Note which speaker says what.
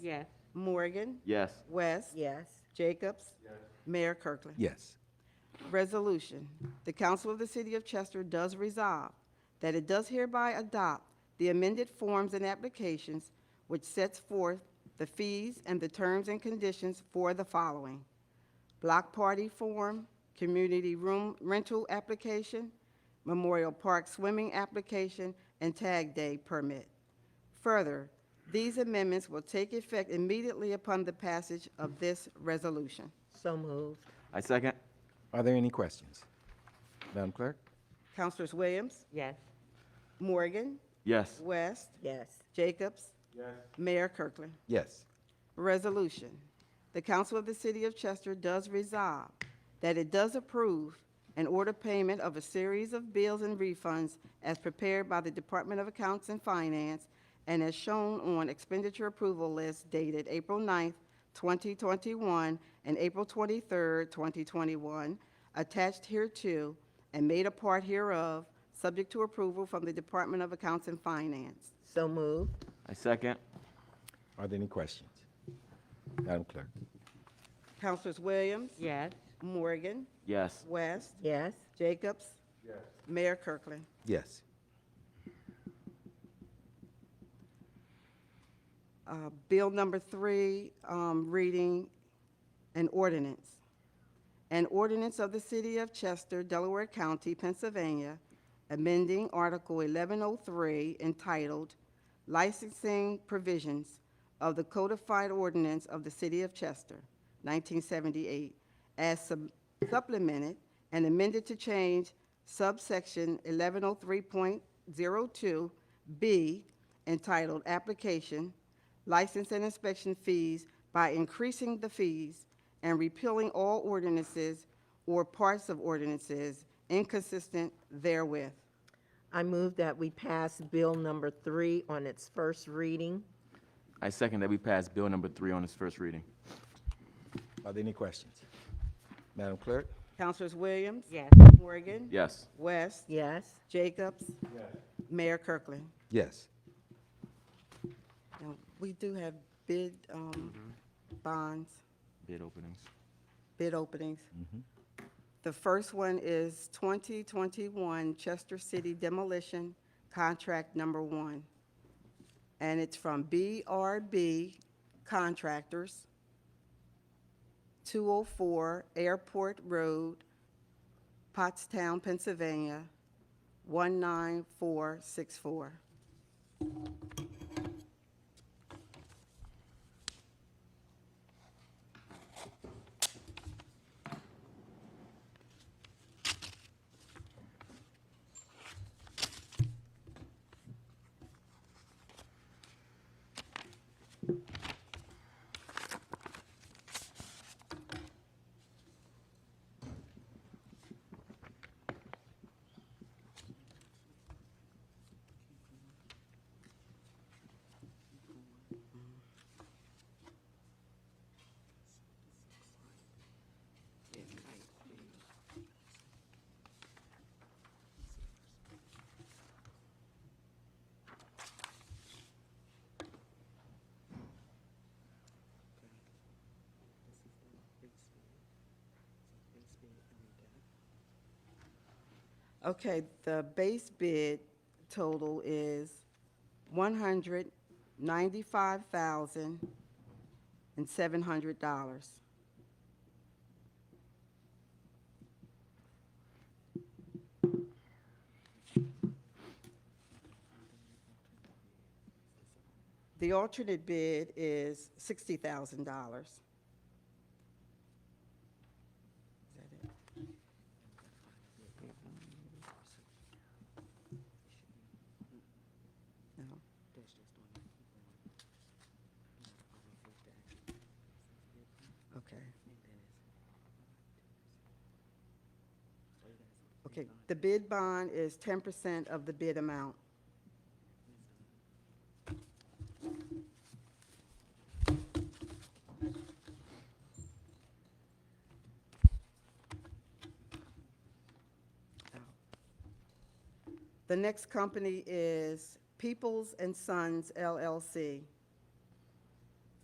Speaker 1: Yes.
Speaker 2: Morgan,
Speaker 3: Yes.
Speaker 2: West,
Speaker 1: Yes.
Speaker 2: Jacobs, Mayor Kirkland.
Speaker 4: Yes.
Speaker 2: Resolution, the Council of the City of Chester does resolve that it does hereby adopt the amended forms and applications which sets forth the fees and the terms and conditions for the following. Block party form, community room rental application, Memorial Park swimming application, and tag day permit. Further, these amendments will take effect immediately upon the passage of this resolution.
Speaker 1: So moved.
Speaker 3: I second.
Speaker 4: Are there any questions? Madam Clerk?
Speaker 2: Councilors Williams,
Speaker 1: Yes.
Speaker 2: Morgan,
Speaker 3: Yes.
Speaker 2: West,
Speaker 1: Yes.
Speaker 2: Jacobs. Mayor Kirkland.
Speaker 4: Yes.
Speaker 2: Resolution. The Council of the City of Chester does resolve that it does approve and order payment of a series of bills and refunds as prepared by the Department of Accounts and Finance and as shown on expenditure approval list dated April 9th, 2021 and April 23rd, 2021, attached hereto and made a part hereof, subject to approval from the Department of Accounts and Finance.
Speaker 1: So moved.
Speaker 3: I second.
Speaker 4: Are there any questions? Madam Clerk?
Speaker 2: Councilors Williams,
Speaker 1: Yes.
Speaker 2: Morgan,
Speaker 3: Yes.
Speaker 2: West,
Speaker 1: Yes.
Speaker 2: Jacobs? Mayor Kirkland.
Speaker 4: Yes.
Speaker 2: Uh, Bill number three, um, reading an ordinance. An ordinance of the City of Chester, Delaware County, Pennsylvania, amending Article 1103 entitled Licensing Provisions of the Codified Ordinance of the City of Chester, 1978, as sub- supplemented and amended to change subsection 1103.02B entitled Application, License and Inspection Fees by increasing the fees and repealing all ordinances or parts of ordinances inconsistent therewith.
Speaker 1: I move that we pass Bill number three on its first reading.
Speaker 3: I second that we pass bill number three on its first reading.
Speaker 4: Are there any questions? Madam Clerk?
Speaker 2: Councilors Williams?
Speaker 1: Yes.
Speaker 2: Morgan?
Speaker 3: Yes.
Speaker 2: West?
Speaker 1: Yes.
Speaker 2: Jacobs? Mayor Kirkland?
Speaker 4: Yes.
Speaker 2: Now, we do have bid, um, bonds,
Speaker 3: Bid openings.
Speaker 2: bid openings. The first one is 2021 Chester City Demolition Contract Number One. And it's from BRB Contractors, 204 Airport Road, Pottstown, Pennsylvania, 19464. Okay, the base bid total is one hundred ninety-five thousand and seven hundred dollars. The alternate bid is sixty thousand dollars. Okay. Okay, the bid bond is ten percent of the bid amount. The next company is Peoples and Sons LLC.